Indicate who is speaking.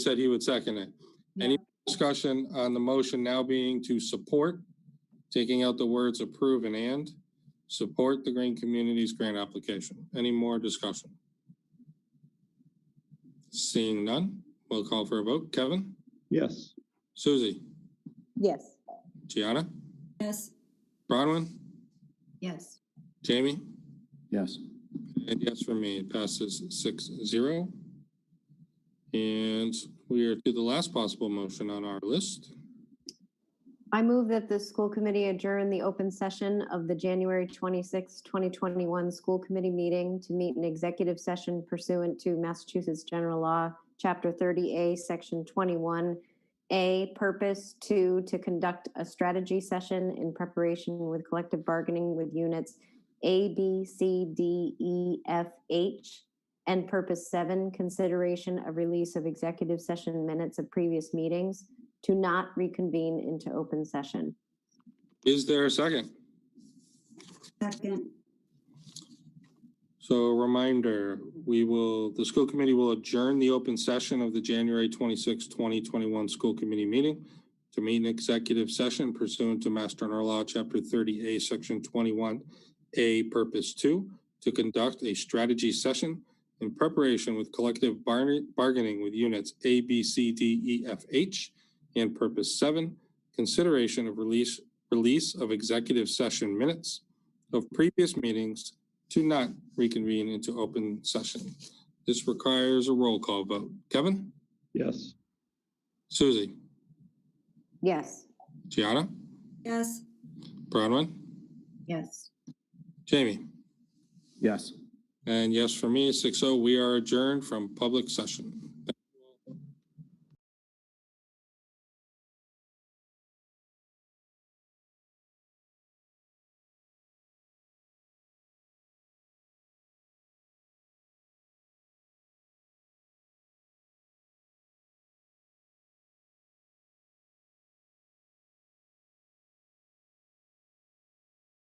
Speaker 1: said he would second it. Any discussion on the motion now being to support, taking out the words approve and and, support the Green Communities grant application? Any more discussion? Seeing none, we'll call for a vote. Kevin?
Speaker 2: Yes.
Speaker 1: Susie?
Speaker 3: Yes.
Speaker 1: Gianna?
Speaker 4: Yes.
Speaker 1: Bronwyn?
Speaker 4: Yes.
Speaker 1: Jamie?
Speaker 2: Yes.
Speaker 1: And yes for me, it passes six zero. And we are to the last possible motion on our list.
Speaker 5: I move that the school committee adjourn the open session of the January 26, 2021 school committee meeting to meet an executive session pursuant to Massachusetts General Law, Chapter 30A, Section 21A, Purpose 2, to conduct a strategy session in preparation with collective bargaining with units A, B, C, D, E, F, H, and Purpose 7, consideration of release of executive session minutes of previous meetings to not reconvene into open session.
Speaker 1: Is there a second?
Speaker 4: Second.
Speaker 1: So a reminder, we will, the school committee will adjourn the open session of the January 26, 2021 school committee meeting to meet an executive session pursuant to Mass General Law, Chapter 30A, Section 21A, Purpose 2, to conduct a strategy session in preparation with collective barne- bargaining with units A, B, C, D, E, F, H, and Purpose 7, consideration of release, release of executive session minutes of previous meetings to not reconvene into open session. This requires a roll call vote. Kevin?
Speaker 2: Yes.
Speaker 1: Susie?
Speaker 5: Yes.
Speaker 1: Gianna?
Speaker 4: Yes.
Speaker 1: Bronwyn?
Speaker 4: Yes.
Speaker 1: Jamie?
Speaker 2: Yes.
Speaker 1: And yes for me, six oh, we are adjourned from public session.